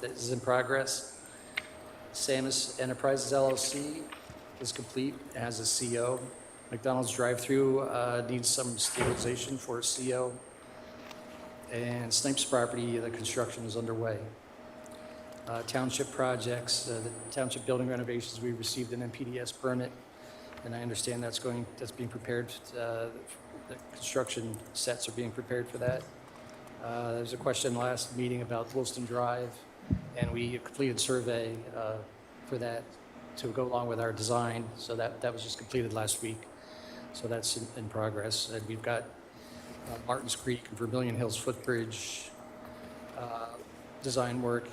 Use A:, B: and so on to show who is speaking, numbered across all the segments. A: that is in progress. Samus Enterprises LLC is complete, has a CO. McDonald's drive-through uh, needs some stabilization for a CO. And Snipes property, the construction is underway. Uh, Township projects, uh, the township building renovations, we received an MPDS permit, and I understand that's going, that's being prepared, uh, the construction sets are being prepared for that. Uh, There was a question last meeting about Wilson Drive, and we completed survey uh, for that to go along with our design, so that, that was just completed last week. So that's in, in progress, and we've got uh, Martins Creek and Vermillion Hills Footbridge uh, design work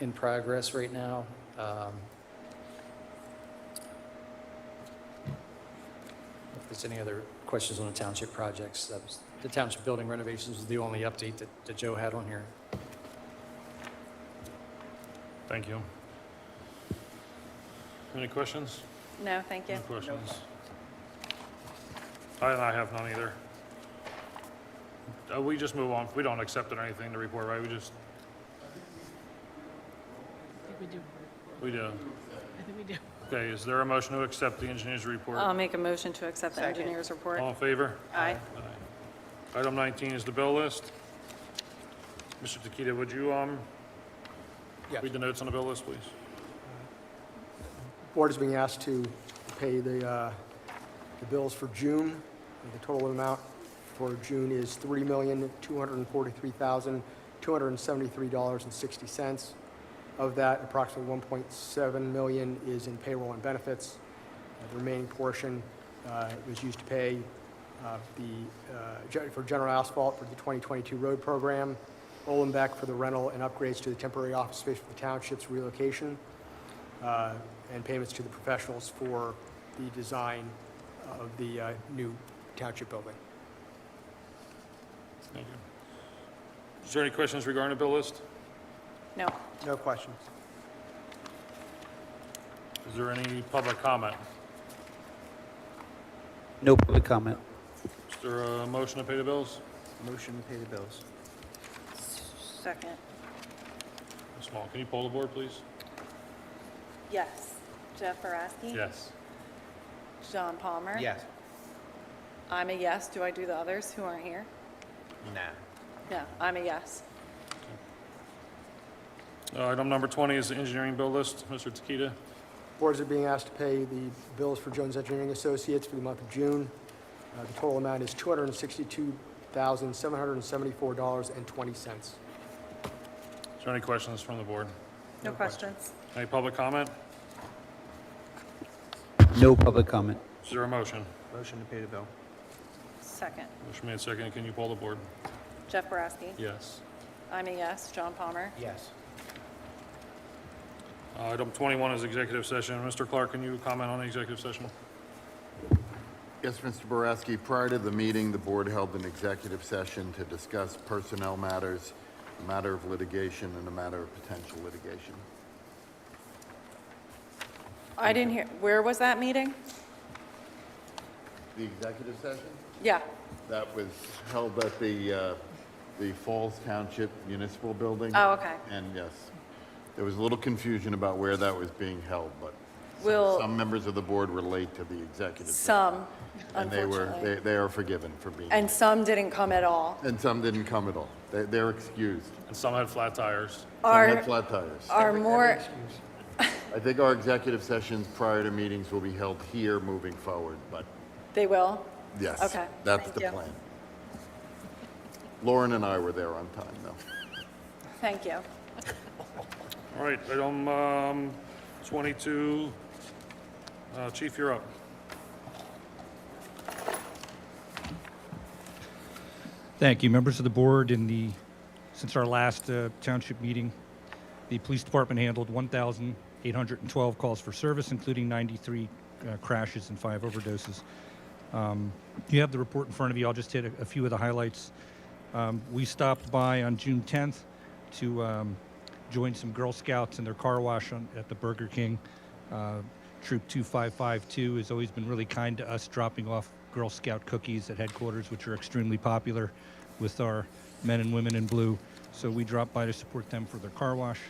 A: in progress right now. Um, If there's any other questions on the township projects, that was, the township building renovations was the only update that, that Joe had on here.
B: Thank you. Any questions?
C: No, thank you.
B: Any questions? I, I have none either. Uh, we just move on. We don't accept it or anything to report, right? We just,
D: I think we do.
B: we do.
D: I think we do.
B: Okay, is there a motion to accept the engineer's report?
C: I'll make a motion to accept the
D: Second.
C: engineer's report.
B: All in favor?
C: Aye.
B: Item 19 is the bill list. Mr. Tequita, would you, um,
E: Yeah.
B: read the notes on the bill list, please?
E: Board is being asked to pay the, uh, the bills for June. The total amount for June is $3,243,273.60. Of that, approximately $1.7 million is in payroll and benefits. Uh, The remaining portion uh, was used to pay uh, the, uh, gen- for general asphalt for the 2022 road program, Olenbeck for the rental and upgrades to the temporary office space for the township's relocation, uh, and payments to the professionals for the design of the uh, new township building.
B: Thank you. Is there any questions regarding the bill list?
C: No.
E: No questions.
B: Is there any public comment?
F: No public comment.
B: Is there a motion to pay the bills?
G: Motion to pay the bills.
C: Second.
B: Ms. Small, can you poll the board, please?
C: Yes. Jeff Boraski?
B: Yes.
C: John Palmer?
G: Yes.
C: I'm a yes. Do I do the others who aren't here?
G: Nah.
C: No, I'm a yes.
B: Uh, Item number 20 is the engineering bill list. Mr. Tequita,
E: Boards are being asked to pay the bills for Jones Engineering Associates for the month of June. Uh, The total amount is $262,774.20.
B: is there any questions from the board?
C: No questions.
B: Any public comment?
F: No public comment.
B: Is there a motion?
G: Motion to pay the bill.
C: Second.
B: Motion made second. Can you poll the board?
C: Jeff Boraski?
B: Yes.
C: I'm a yes. John Palmer?
G: Yes.
B: Uh, Item 21 is executive session. Mr. Clark, can you comment on the executive session?
H: Yes, Mr. Boraski, prior to the meeting, the board held an executive session to discuss personnel matters, a matter of litigation, and a matter of potential litigation.
C: I didn't hear, where was that meeting?
H: The executive session?
C: Yeah.
H: That was held at the, uh, the Falls Township Municipal Building.
C: Oh, okay.
H: And yes, there was a little confusion about where that was being held, but
C: Will-
H: some members of the board were late to the executive. session,
C: Some,
H: And they were,
C: unfortunately.
H: they, they are forgiven for being,
C: And some didn't come at all.
H: and some didn't come at all. They, they're excused.
B: And some had flat tires.
H: Some
C: Are,
H: had flat tires.
C: are more,
H: I think our executive sessions prior to meetings will be held here moving forward, but
C: they will?
H: yes.
C: Okay,
H: That's
C: thank
H: the
C: you.
H: plan. Lauren and I were there on time, though.
C: Thank you.
B: All right, item um, 22. Uh, Chief, you're up.
I: Thank you, members of the board. In the since our last uh, township meeting, the police department handled 1,812 calls for service, including 93 uh, crashes and five overdoses. Um, you have the report in front of you. I'll just hit a, a few of the highlights. Um, we stopped by on June 10th to um, join some Girl Scouts in their car wash on, at the Burger King. Uh, Troop 2552 has always been really kind to us, dropping off Girl Scout cookies at headquarters, which are extremely popular with our men and women in blue. So we dropped by to support them for their car wash.